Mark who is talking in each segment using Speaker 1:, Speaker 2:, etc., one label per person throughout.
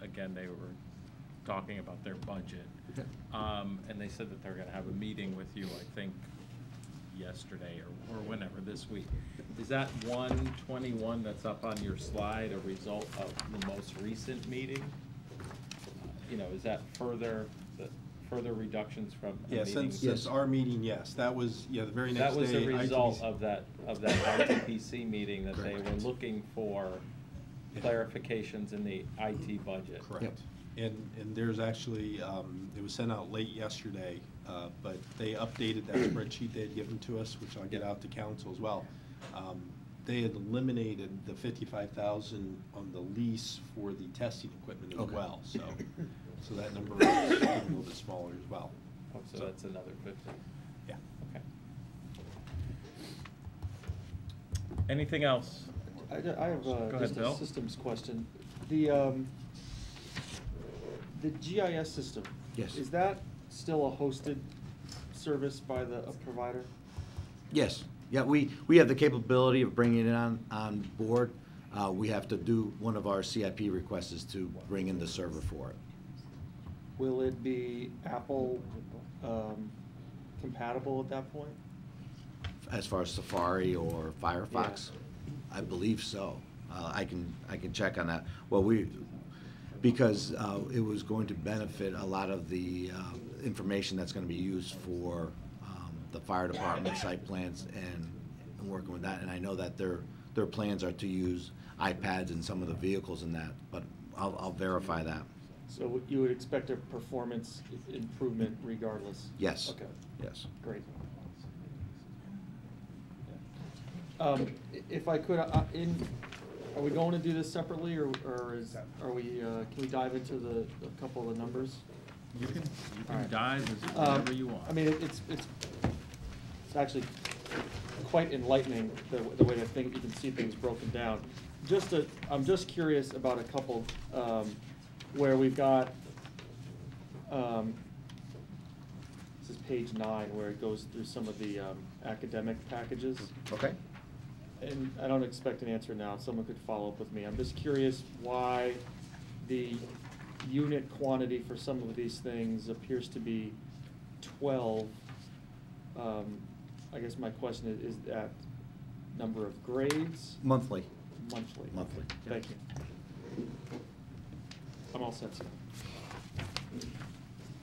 Speaker 1: weekend, they were talking about their budget. Um, And they said that they're going to have a meeting with you, I think, yesterday or- or whenever, this week. Is that 121 that's up on your slide a result of the most recent meeting? You know, is that further, the- further reductions from a
Speaker 2: Yeah,
Speaker 1: meeting?
Speaker 2: since, since our meeting, yes, that was, yeah, the very
Speaker 1: That
Speaker 2: next day.
Speaker 1: was the
Speaker 2: ITBC
Speaker 1: result of that, of that ITPC meeting, that they were
Speaker 2: Correct.
Speaker 1: looking for
Speaker 2: Yeah.
Speaker 1: clarifications in the IT budget.
Speaker 2: Correct. And, and there's actually, um, it was sent out late yesterday, uh, but they updated that spreadsheet they had given to us, which I'll get out to council as well. Um, They had eliminated the fifty-five thousand on the lease for the testing equipment as
Speaker 3: Okay.
Speaker 2: well, so, so that number is a little bit smaller as well.
Speaker 1: Oh, So that's another fifty,
Speaker 2: Yeah.
Speaker 1: okay. Anything else?
Speaker 4: I, ju- I have
Speaker 1: Go
Speaker 4: uh,
Speaker 1: ahead,
Speaker 4: just
Speaker 1: Bill.
Speaker 4: a systems question. The, um, the GIS system?
Speaker 3: Yes.
Speaker 4: Is that still a hosted service by the a provider?
Speaker 3: Yes, yeah, we, we have the capability of bringing it on, on board. Uh, we have to do, one of our CIP requests is to bring in the server for it.
Speaker 4: Will it be Apple um, compatible at that point?
Speaker 3: As far as Safari or Firefox? I believe so. Uh, I can, I can check on that. Well, we, because uh, it was going to benefit a lot of the uh, information that's going to be used for um, the fire department site plans and and working with that. And I know that their, their plans are to use iPads in some of the vehicles and that, but I'll, I'll verify that.
Speaker 4: So you would expect a performance i- improvement regardless?
Speaker 3: Yes.
Speaker 4: Okay,
Speaker 3: Yes.
Speaker 4: great. Um, i- If I could, I- in, are we going to do this separately, or or is, are we, uh, can we dive into the, a couple of the numbers?
Speaker 1: You can, you
Speaker 4: All
Speaker 1: can
Speaker 4: right.
Speaker 1: dive as
Speaker 4: Um,
Speaker 1: whatever you want.
Speaker 4: I mean, it- it's, it's, it's actually quite enlightening, the, the way to think, you can see things broken down. Just a, I'm just curious about a couple, um, where we've got, um, this is page nine, where it goes through some of the, um, academic packages.
Speaker 3: Okay.
Speaker 4: And I don't expect an answer now, someone could follow up with me. I'm just curious why the unit quantity for some of these things appears to be twelve. Um, I guess my question is, is that number of grades
Speaker 3: Monthly.
Speaker 4: monthly?
Speaker 3: Monthly.
Speaker 4: Thank you. I'm all set, Scott.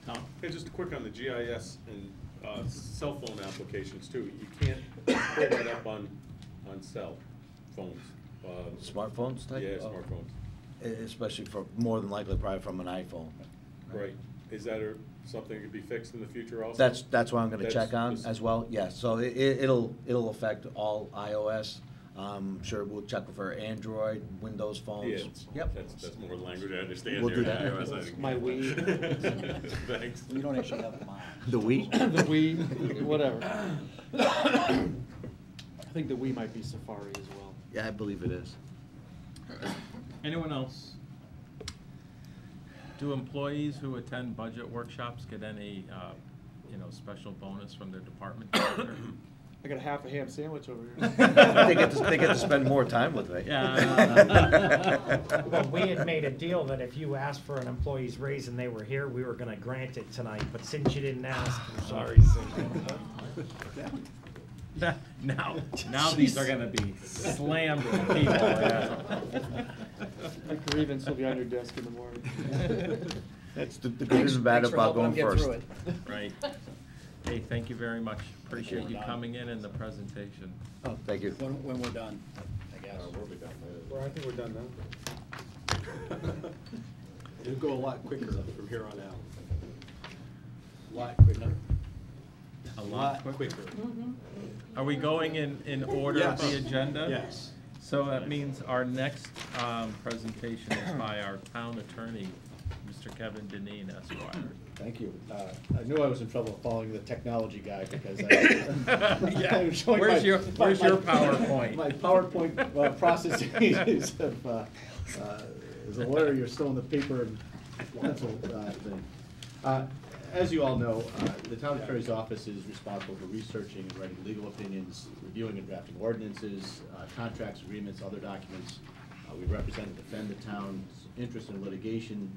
Speaker 1: Tom?
Speaker 5: Hey, just quick on the GIS and uh, cell phone applications too. You can't pull that up on, on cell phones. uh,
Speaker 3: Smartphones type?
Speaker 5: Yeah,
Speaker 3: Oh.
Speaker 5: smartphones.
Speaker 3: E- Especially for, more than likely probably from an iPhone.
Speaker 5: Right. Is that a- something that could be fixed in the future also?
Speaker 3: That's, that's what I'm gonna
Speaker 5: That's-
Speaker 3: check on
Speaker 5: this-
Speaker 3: as well, yeah, so it, it'll, it'll affect all iOS. Um, sure, we'll check for Android, Windows
Speaker 5: Yeah,
Speaker 3: phones.
Speaker 5: that's, that's more language I understand
Speaker 3: We'll do
Speaker 5: there.
Speaker 3: that.
Speaker 5: I was like-
Speaker 4: My Wii.
Speaker 5: Thanks.
Speaker 6: We don't actually have mine.
Speaker 3: The we?
Speaker 4: The we, whatever. I think the we might be Safari as well.
Speaker 3: Yeah, I believe it is.
Speaker 1: Anyone else? Do employees who attend budget workshops get any, uh, you know, special bonus from their department director?
Speaker 4: I got a half a ham sandwich over here.
Speaker 3: They get to, they get to spend more time with me.
Speaker 1: Yeah.
Speaker 7: Well, we had made a deal that if you asked for an employee's raise and they were here, we were gonna grant it tonight, but since you didn't ask, I'm sorry, Cindy.
Speaker 1: Now, now these are gonna be slammed with people. yeah.
Speaker 4: The grievance will be on your desk in the morning.
Speaker 3: That's the, the good and bad
Speaker 6: Thanks for
Speaker 3: about
Speaker 6: helping
Speaker 3: going
Speaker 6: him get
Speaker 3: first.
Speaker 6: through it.
Speaker 1: Right. Hey, thank you very much. Appreciate you coming in and the presentation.
Speaker 3: Oh, thank you.
Speaker 6: When, when we're done, I guess.
Speaker 2: Uh,
Speaker 5: I think we're done now.
Speaker 2: It'll go a lot quicker from here on out.
Speaker 6: Lot quicker.
Speaker 1: A lot
Speaker 2: Quicker.
Speaker 6: Mm-hmm.
Speaker 1: Are we going in, in order of the
Speaker 2: Yes.
Speaker 1: agenda?
Speaker 2: Yes.
Speaker 1: So that means our next um, presentation is by our town attorney, Mr. Kevin Deneen Esquire.
Speaker 8: Thank you. Uh, I knew I was in trouble following the technology guy because I. I was showing
Speaker 1: Where's
Speaker 8: my-
Speaker 1: your-
Speaker 8: my-
Speaker 1: where's your
Speaker 8: my-
Speaker 1: PowerPoint?
Speaker 8: My PowerPoint uh, processing is, of, uh, uh, as a lawyer, you're still in the paper and pencil uh, thing. Uh, As you all know, uh, the town attorney's office is responsible for researching and writing legal opinions, reviewing and drafting ordinances, uh, contracts, agreements, other documents. Uh, We represent and defend the town's interest in litigation